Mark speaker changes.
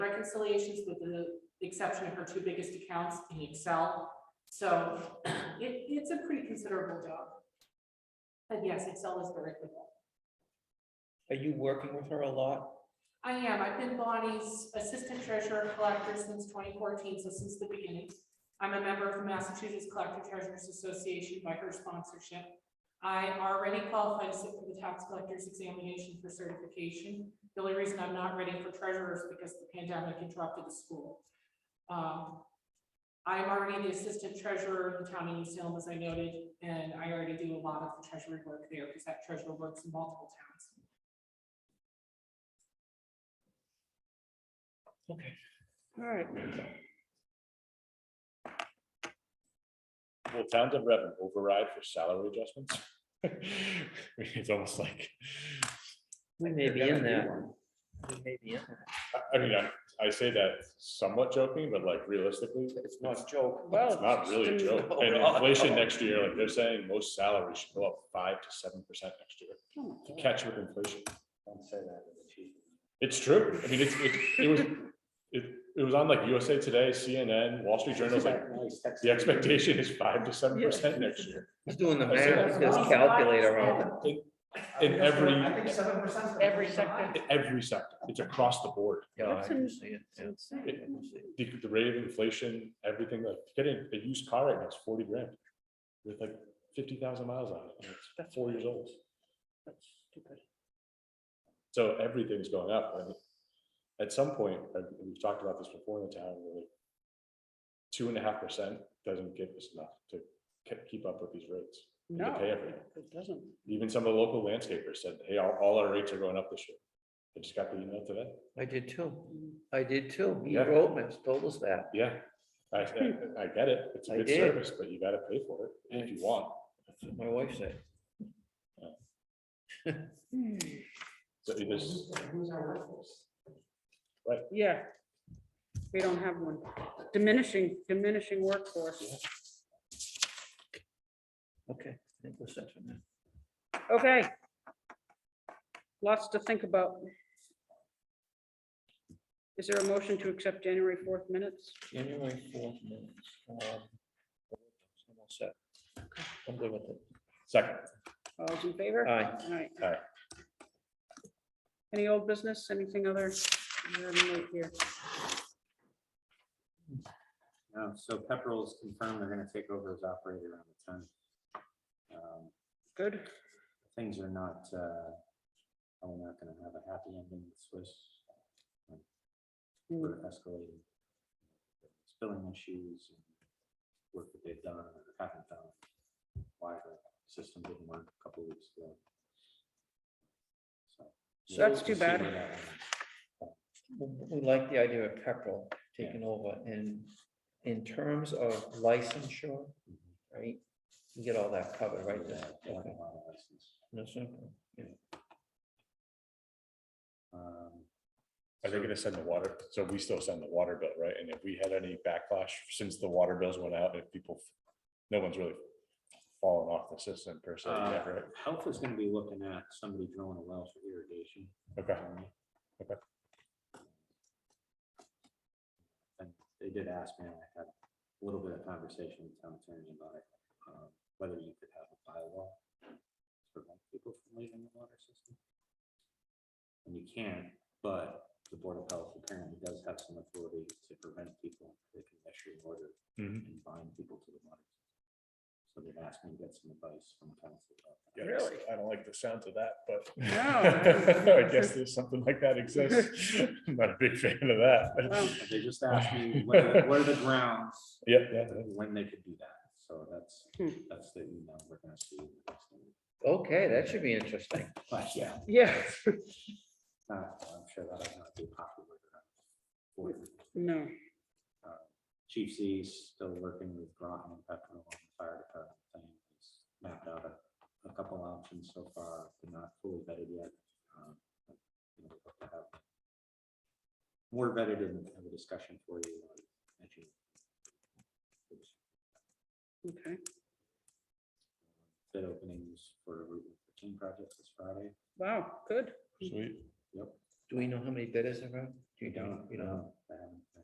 Speaker 1: reconciliations with the exception of her two biggest accounts in Excel. So it, it's a pretty considerable job. But yes, Excel is very good.
Speaker 2: Are you working with her a lot?
Speaker 1: I am, I've been Bonnie's assistant treasurer collector since twenty fourteen, so since the beginning. I'm a member of the Massachusetts Collector Treasurers Association by her sponsorship. I already qualified to sit for the tax collector's examination for certification. The only reason I'm not ready for treasurer is because the pandemic interrupted the school. Um, I'm already the assistant treasurer of the town of New Salem, as I noted, and I already do a lot of the treasury work there because that treasurer works in multiple towns.
Speaker 2: Okay, all right.
Speaker 3: Will towns and revenue override for salary adjustments? It's almost like,
Speaker 2: We may be in that. We may be in that.
Speaker 3: I- I mean, I, I say that somewhat joking, but like realistically,
Speaker 4: It's not a joke.
Speaker 2: Well,
Speaker 3: it's not really a joke. And inflation next year, like they're saying, most salaries should go up five to seven percent next year. to Catch with inflation.
Speaker 4: Don't say that. to the chief.
Speaker 3: It's true. I mean, it's, it, it was, it, it was on like USA Today, CNN, Wall Street Journal's like,
Speaker 4: Nice, that's-
Speaker 3: the expectation is five to seven percent next year.
Speaker 2: He's doing the
Speaker 3: I see
Speaker 2: math,
Speaker 3: that.
Speaker 2: his calculator on
Speaker 3: In every,
Speaker 4: I think seven percent.
Speaker 2: Every sector.
Speaker 3: in every sector. It's across the board.
Speaker 2: it.
Speaker 5: Yeah, I
Speaker 2: That's an-
Speaker 5: can see it. yeah.
Speaker 3: It- The, the rate of inflation, everything, like getting a used car right now is forty grand with like fifty thousand miles on it. and It's four years old. So everything's going up. and At some point, and we've talked about this before in the town, really. Two and a half percent doesn't give us enough to ke- keep up with these rates.
Speaker 5: No,
Speaker 3: pay everything.
Speaker 5: it doesn't.
Speaker 3: Even some of the local landscapers said, hey, all, all our rates are going up this year. I just got the email today.
Speaker 2: I did too. I did too. He
Speaker 3: Yeah.
Speaker 2: wrote us, told us that.
Speaker 3: Yeah, I, I I get it. It's a
Speaker 2: I
Speaker 3: good
Speaker 2: did.
Speaker 3: service, but you gotta pay for it if you want.
Speaker 2: That's what my wife said.
Speaker 3: So it is,
Speaker 4: Who's our workforce?
Speaker 5: Yeah. We don't have one. Diminishing, diminishing workforce.
Speaker 2: Okay. I think we're set for now.
Speaker 5: Okay. Lots to think about. Is there a motion to accept January fourth minutes?
Speaker 2: January fourth minutes. um, I'm all set. I'm good with it.
Speaker 3: second,
Speaker 5: All those in favor?
Speaker 2: Aye.
Speaker 5: Aye.
Speaker 3: Aye.
Speaker 5: Any old business, anything other? Is there a note here?
Speaker 4: No, so Pepperell's confirmed they're gonna take over as operator on the tenth. Um,
Speaker 5: Good.
Speaker 4: Things are not, uh, are we not gonna have a happy ending with Swiss? Like, We're escalating. Spilling issues and work that they've done or haven't done. Why the system didn't work a couple weeks ago. So,
Speaker 5: So that's too
Speaker 4: we'll see
Speaker 5: bad.
Speaker 4: where that ends.
Speaker 2: We we like the idea of Pepperell taking over and in terms of licensure, right? You get all that covered, right?
Speaker 4: Yeah, they have a
Speaker 2: Okay.
Speaker 4: lot of license.
Speaker 2: That's simple.
Speaker 4: Um,
Speaker 3: are they gonna send the water? So we still send the water bill, right? And if we had any backlash since the water bills went out, if people, no one's really fallen off the system per se,
Speaker 4: Uh,
Speaker 3: yet, right?
Speaker 4: Health is gonna be looking at somebody drilling a well for irrigation.
Speaker 3: Okay,
Speaker 4: um,
Speaker 3: Okay.
Speaker 4: And They did ask me, and I had a little bit of conversation with town attorney about it, um, whether you could have a bylaw to prevent people from leaving the water system. And you can, but the Board of Health apparently does have some authority to prevent people, they can issue an order
Speaker 3: Mhm.
Speaker 4: and bind people to the water. system. So they asked me to get some advice from council about that.
Speaker 3: Yes,
Speaker 5: Really?
Speaker 3: I don't like the sound of that, but
Speaker 5: No.
Speaker 3: I guess there's something like that exists. I'm not a big fan of that.
Speaker 5: Wow.
Speaker 4: And They just asked me, what are, what are the grounds
Speaker 3: Yeah, yeah,
Speaker 4: when they could do that. So that's,
Speaker 5: Hmm.
Speaker 4: that's the email we're gonna see. in the next meeting.
Speaker 2: Okay, that should be interesting.
Speaker 4: But yeah,
Speaker 5: Yeah.
Speaker 4: uh, I'm sure that'll not be popular. with,
Speaker 5: Hmm.
Speaker 4: uh,
Speaker 5: No.
Speaker 4: for, uh, Chief C's still working with Groton and Pepperell on the fire department thing. He's Mapped out a, a couple options so far, but not fully vetted yet. Um, you know, we'll have to have More vetted and have a discussion for you. on that, Chief.
Speaker 5: Okay.
Speaker 4: bid openings for Route one fifteen projects this Friday.
Speaker 5: Wow. Good.
Speaker 3: sweet.
Speaker 2: Do we know how many bidders there are? Do you don't, you know?
Speaker 4: know,